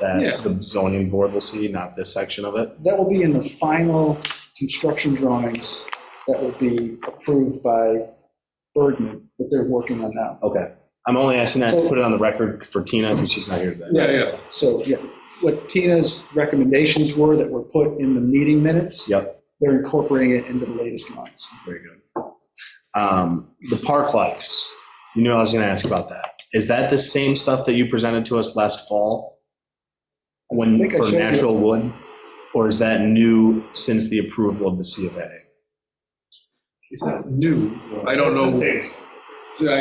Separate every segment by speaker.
Speaker 1: that
Speaker 2: Yeah.
Speaker 1: the zoning board will see, not this section of it?
Speaker 2: That will be in the final construction drawings that will be approved by Bergman that they're working on now.
Speaker 1: Okay. I'm only asking that to put it on the record for Tina, because she's not here today.
Speaker 3: Yeah, yeah.
Speaker 2: So, yeah, what Tina's recommendations were that were put in the meeting minutes,
Speaker 1: Yep,
Speaker 2: they're incorporating it into the latest drawings.
Speaker 1: very good. Um, The park lights, you knew I was going to ask about that. Is that the same stuff that you presented to us last fall?
Speaker 2: I
Speaker 1: When,
Speaker 2: think I
Speaker 1: for
Speaker 2: showed you.
Speaker 1: natural wood? Or is that new since the approval of the C of A?
Speaker 3: It's not new. I don't know, I don't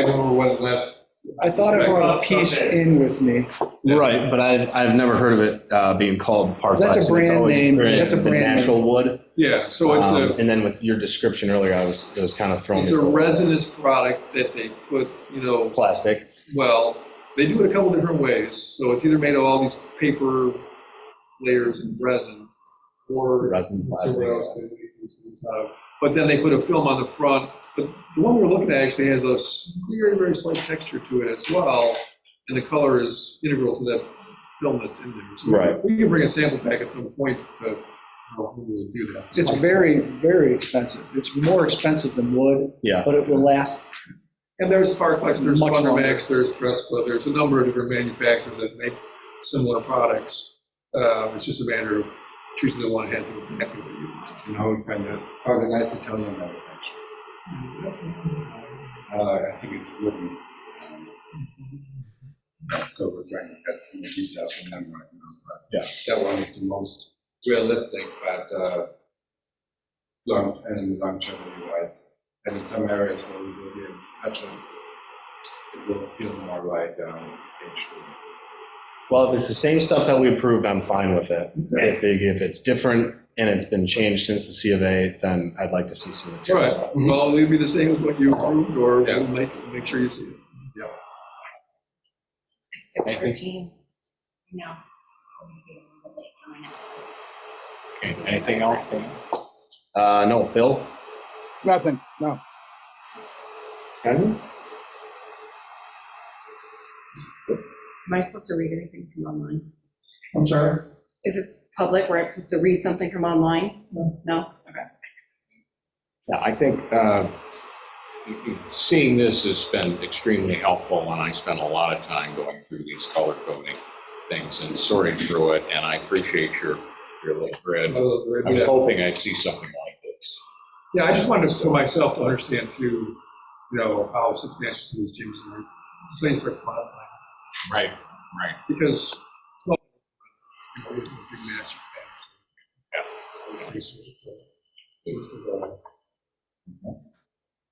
Speaker 3: remember when last,
Speaker 2: I thought I brought a piece in with me.
Speaker 3: Yeah.
Speaker 1: Right, but I've, I've never heard of it uh, being called park
Speaker 2: That's a
Speaker 1: lights. and it's
Speaker 2: brand
Speaker 1: always
Speaker 2: name.
Speaker 1: been
Speaker 2: That's a
Speaker 1: the
Speaker 2: brand name.
Speaker 1: Natural wood.
Speaker 3: yeah, so it's
Speaker 1: Um,
Speaker 3: a,
Speaker 1: And then with your description earlier, I was, it was kind of thrown.
Speaker 3: it's
Speaker 1: me
Speaker 3: a
Speaker 1: for
Speaker 3: resinous product that they put, you know,
Speaker 1: Plastic.
Speaker 3: well, they do it a couple different ways. So it's either made of all these paper layers and resin, or
Speaker 1: Resin, plastic.
Speaker 3: Somewhere else they make these things out of. But then they put a film on the front. But the one we're looking at actually has a s- very, very slight texture to it as well, and the color is integral to that film that's in there. So
Speaker 1: Right.
Speaker 3: We can bring a sample back at some point uh, to you know, review that.
Speaker 2: It's very, very expensive. It's more expensive than wood,
Speaker 1: Yeah.
Speaker 2: but it will last.
Speaker 3: And there's Farflex, there's
Speaker 2: Much longer.
Speaker 3: Thundermax, there's Trespa, there's a number of different manufacturers that make similar products. Uh, It's just a matter of choosing the one that has exactly what you want.
Speaker 4: It's an old friend, uh, probably a nice Italian manufacturer. Uh, I think it's wooden. um, not Silver trying to get the details from them right now, but.
Speaker 1: Yeah.
Speaker 4: That one is the most realistic, but, uh, long, and longevity wise. And in some areas where we will be in touch on, it will feel more like, um, actually.
Speaker 1: Well, if it's the same stuff that we approved, I'm fine with it.
Speaker 3: Okay.
Speaker 1: If, they- if it's different and it's been changed since the C of A, then I'd like to see some
Speaker 3: All
Speaker 1: material.
Speaker 3: right, well, it'll be the same as what you approved, or
Speaker 4: Yeah.
Speaker 3: we'll make, make sure you see it.
Speaker 5: It's six
Speaker 1: Thank you.
Speaker 5: thirteen, no.
Speaker 1: Anything else? Uh, no, Bill?
Speaker 6: Nothing, no.
Speaker 5: Am I supposed to read anything from online?
Speaker 4: I'm sorry?
Speaker 5: Is this public, where I'm supposed to read something from online? No? Okay.
Speaker 7: Yeah, I think uh, seeing this has been extremely helpful, and I spent a lot of time going through these color coding things and sorting through it, and I appreciate your, your little grid. I was hoping I'd see something like this.
Speaker 3: Yeah, I just wanted for myself to understand too, you know, how substantial some of these changes are, things are modifying,
Speaker 7: Right, right.
Speaker 3: because. it's not, you know, we have a big master plan, so-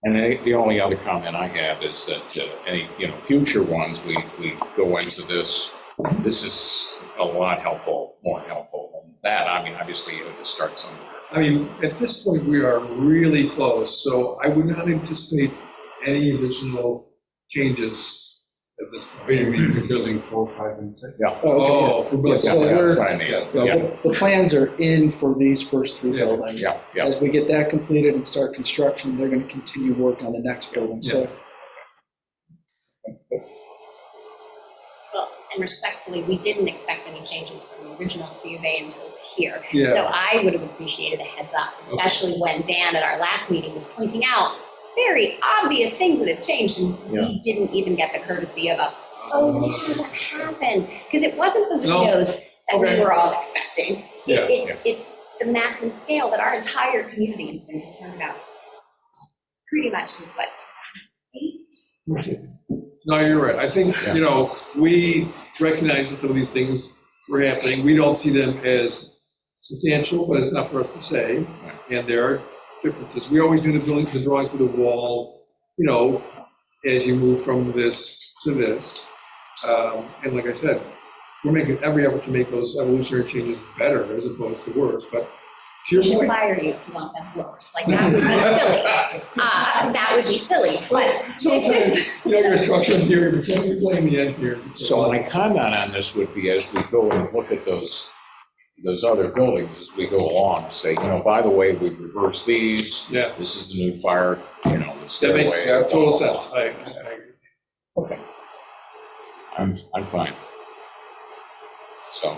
Speaker 7: And then the only other comment I have is that uh, any, you know, future ones, we, we go into this, this is a lot helpful, more helpful than that. I mean, obviously, you have to start somewhere.
Speaker 3: I mean, at this point, we are really close, so I would not anticipate any additional changes at this
Speaker 4: What do you
Speaker 3: point.
Speaker 4: mean, for building four, five, and six?
Speaker 7: Yeah.
Speaker 3: Oh, for Bill,
Speaker 2: So we're-
Speaker 7: That's what I mean.
Speaker 2: So The the plans are in for these first three
Speaker 3: Yeah,
Speaker 2: buildings.
Speaker 7: Yeah, yeah.
Speaker 2: As we get that completed and start construction, they're going to continue work on the next building. So
Speaker 8: Well, and respectfully, we didn't expect any changes from the original C of A until here. So
Speaker 3: yeah,
Speaker 8: I would have appreciated a heads up, especially when Dan at our last meeting was pointing out very obvious things that had changed, and we didn't even get the courtesy of a, oh, yeah, that happened, because it wasn't the
Speaker 3: No.
Speaker 8: windows that we
Speaker 3: Okay.
Speaker 8: were all expecting.
Speaker 3: yeah.
Speaker 8: It's, it's the max and scale that our entire community has been concerned about, pretty much since what, eight?
Speaker 3: No, you're right. I think,
Speaker 7: Yeah.
Speaker 3: you know, we recognize that some of these things were happening. We don't see them as substantial, but it's not for us to say. And there are differences. We always do the building, the drawings with the wall, you know, as you move from this to this. Um, And like I said, we're making every effort to make those evolutionary changes better as opposed to worse, but to your
Speaker 8: You should
Speaker 3: point.
Speaker 8: fire you if you want them worse, like, that would be silly. Uh, that would be silly, but this is,
Speaker 3: Sometimes, you know, your structural theory, but then you blame the engineers. and
Speaker 7: So
Speaker 3: on.
Speaker 7: my comment on this would be as we go and look at those, those other buildings as we go along, say, you know, by the way, we reversed these.
Speaker 3: Yeah.
Speaker 7: This is the new fire, you know, the
Speaker 3: That
Speaker 7: stairway.
Speaker 3: makes total
Speaker 7: blah, blah, blah.
Speaker 3: sense. I, I agree.
Speaker 7: Okay. I'm, I'm fine. So.